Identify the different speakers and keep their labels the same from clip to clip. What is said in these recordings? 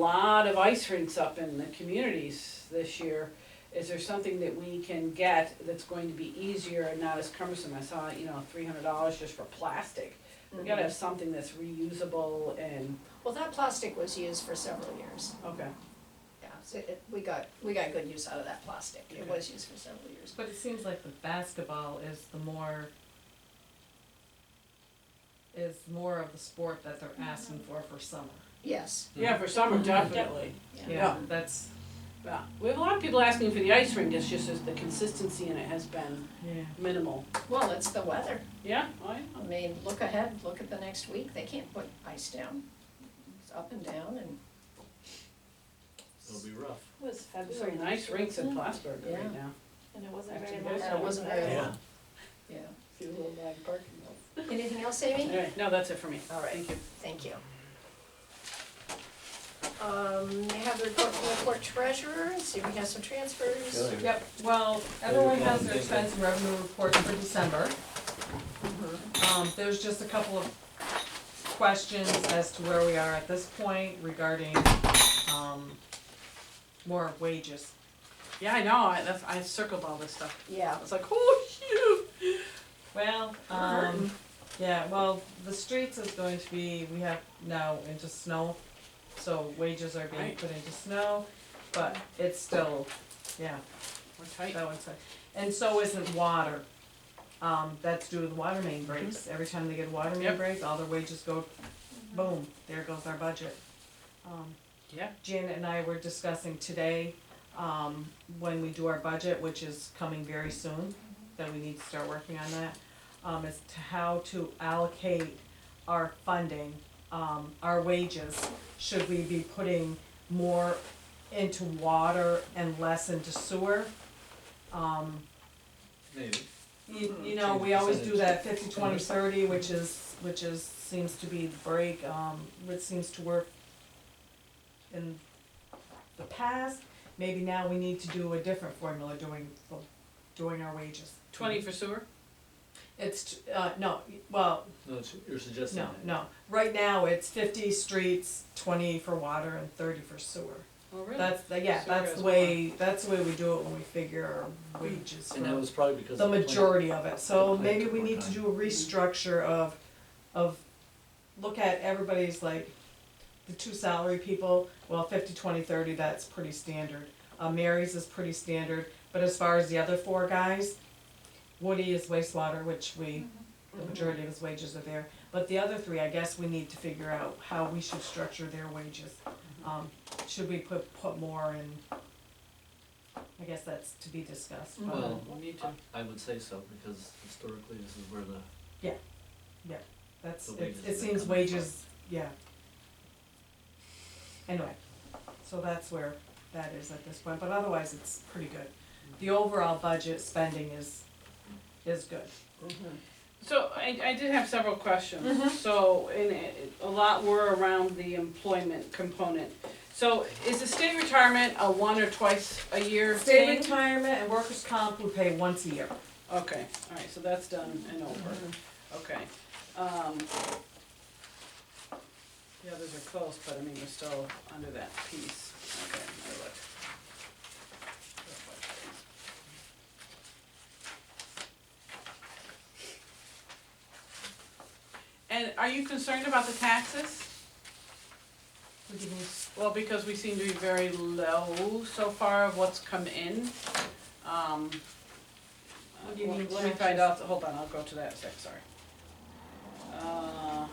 Speaker 1: lot of ice rinks up in the communities this year. Is there something that we can get that's going to be easier and not as cumbersome? I saw, you know, three hundred dollars just for plastic. We gotta have something that's reusable and,
Speaker 2: Mm-hmm. Well, that plastic was used for several years,
Speaker 1: okay,
Speaker 2: yeah, so it, we got, we got good use out of that plastic, it
Speaker 1: Okay.
Speaker 2: was used for several years.
Speaker 3: But it seems like the basketball is the more is more of the sport that they're asking for for summer.
Speaker 2: Yes,
Speaker 1: yeah, for summer, definitely.
Speaker 2: yeah,
Speaker 3: Yeah, that's
Speaker 1: Yeah, we have a lot of people asking for the ice rink, it's just that the consistency in it has been
Speaker 3: yeah.
Speaker 1: minimal.
Speaker 2: well, it's the weather,
Speaker 1: Yeah, I
Speaker 2: I mean, look ahead, look at the next week, they can't put ice down, it's up and down and.
Speaker 4: It'll be rough.
Speaker 5: was
Speaker 1: have some nice rinks in Plattsburgh
Speaker 2: Yeah.
Speaker 1: right now.
Speaker 5: and it wasn't
Speaker 1: very
Speaker 5: very
Speaker 1: long.
Speaker 5: long.
Speaker 2: And it wasn't very
Speaker 4: Yeah.
Speaker 2: long, yeah.
Speaker 1: Few little black parking
Speaker 2: Anything else, Amy?
Speaker 1: All right, no, that's it for me.
Speaker 2: All right.
Speaker 1: Thank you.
Speaker 2: Thank you. Um, they have the report from the court treasurer, see if we have some transfers.
Speaker 4: Really?
Speaker 3: Yep, well, everyone has their expense and revenue reports for December. Um, there's just a couple of questions as to where we are at this point regarding, um, more wages.
Speaker 1: Yeah, I know, I, that's, I circled all this stuff.
Speaker 2: Yeah,
Speaker 1: I was like, oh, shoot.
Speaker 3: Well, um,
Speaker 1: Mm-hmm.
Speaker 3: yeah, well, the streets is going to be, we have now into snow, so wages are being
Speaker 1: Right.
Speaker 3: put into snow, but it's still, yeah,
Speaker 1: We're tight.
Speaker 3: that one's fine. And so isn't water, um, that's due to the water main breaks, every time they get a water main
Speaker 1: Mm-hmm. Yep. Mm-hmm.
Speaker 3: break, all their wages go, boom, there goes our budget. Um,
Speaker 1: Yeah.
Speaker 3: Janet and I were discussing today, um, when we do our budget, which is coming very soon, that we need to start working on that, um, is to how to allocate our funding, um, our wages. Should we be putting more into water and less into sewer? Um,
Speaker 4: Maybe.
Speaker 3: you, you
Speaker 4: Mm-hmm.
Speaker 3: know, we always do that fifty, twenty, thirty, which is, which is, seems to be the break, um, which seems to work in the past, maybe now we need to do a different formula doing, doing our wages.
Speaker 1: Twenty for sewer?
Speaker 3: It's, t- uh, no, well,
Speaker 4: No, it's- you're suggesting
Speaker 3: no,
Speaker 4: that.
Speaker 3: no, right now it's fifty streets, twenty for water and thirty for sewer.
Speaker 1: Oh, really?
Speaker 3: That's, the- yeah,
Speaker 1: Sewer
Speaker 3: that's
Speaker 1: goes
Speaker 3: the way, that's the way we do it when we figure our wages
Speaker 4: And
Speaker 3: for-
Speaker 4: that was probably because.
Speaker 3: the
Speaker 4: of plan.
Speaker 3: majority of it, so
Speaker 4: Plan
Speaker 3: maybe
Speaker 4: took
Speaker 3: we
Speaker 4: more
Speaker 3: need to
Speaker 4: time.
Speaker 3: do a restructure of, of, look at everybody's like, the two salary people, well, fifty, twenty, thirty, that's pretty standard. Uh, Mary's is pretty standard, but as far as the other four guys, Woody is wastewater, which we, the majority of his wages are there. But the other three, I guess we need to figure out how we should structure their wages.
Speaker 4: Mm-hmm.
Speaker 3: Um, should we put, put more in, I guess that's to be discussed, but.
Speaker 4: Well,
Speaker 1: We need to.
Speaker 4: I would say so, because historically, this is where the,
Speaker 3: That's,
Speaker 4: The
Speaker 3: it,
Speaker 4: wages
Speaker 3: it
Speaker 4: that
Speaker 3: seems
Speaker 4: come
Speaker 3: wages, yeah. Anyway, so that's where that is at this point, but otherwise it's pretty good. The overall budget spending is, is good.
Speaker 1: So I, I did have several questions. So, and it- a lot were around the employment component. So is the state retirement a one or twice a year
Speaker 3: State
Speaker 1: thing?
Speaker 3: retirement and workers' comp we pay once a year.
Speaker 1: Okay, all right, so that's done and over, okay. Um, The others are close, but I mean, we're still under that piece, okay, I look. And are you concerned about the taxes?
Speaker 3: What do you mean?
Speaker 1: Well, because we seem to be very low so far of what's come in, um.
Speaker 3: What do you
Speaker 1: uh,
Speaker 3: mean
Speaker 1: Let me
Speaker 3: taxes?
Speaker 1: find out, hold on, I'll go to that in a sec, sorry. Uh,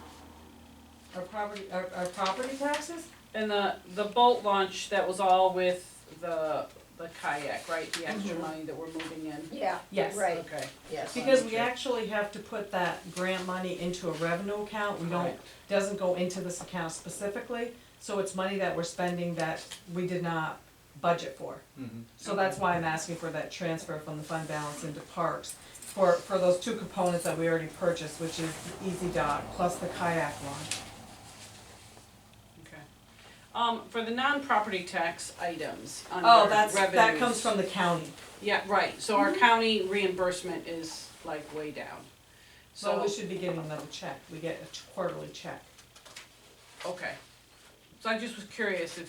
Speaker 3: Our property, our, our property taxes?
Speaker 1: and the, the boat launch, that was all with the, the kayak, right, the extra
Speaker 3: Mm-hmm.
Speaker 2: Mhm.
Speaker 1: money that we're moving in?
Speaker 2: yeah,
Speaker 3: Yes.
Speaker 2: right,
Speaker 1: Okay,
Speaker 2: yes.
Speaker 3: Because we
Speaker 1: Sure.
Speaker 3: actually have to put that grant money into a revenue account, we don't
Speaker 1: alright,
Speaker 3: doesn't go into this account specifically, so it's money that we're spending that we did not budget for.
Speaker 4: Mm-hmm.
Speaker 3: So that's why I'm asking for that transfer from the fund balance into parks, for, for those two components that we already purchased, which is the Easy Dock plus the kayak launch.
Speaker 1: okay. Um, for the non-property tax items under
Speaker 3: Oh, that's, that
Speaker 1: revenues-
Speaker 3: comes from Mm-hmm. the county,
Speaker 1: Yeah, right, so our county reimbursement is like way down, so.
Speaker 3: so we should be getting another check, we get a quarterly check.
Speaker 1: Okay. So I just was curious if you.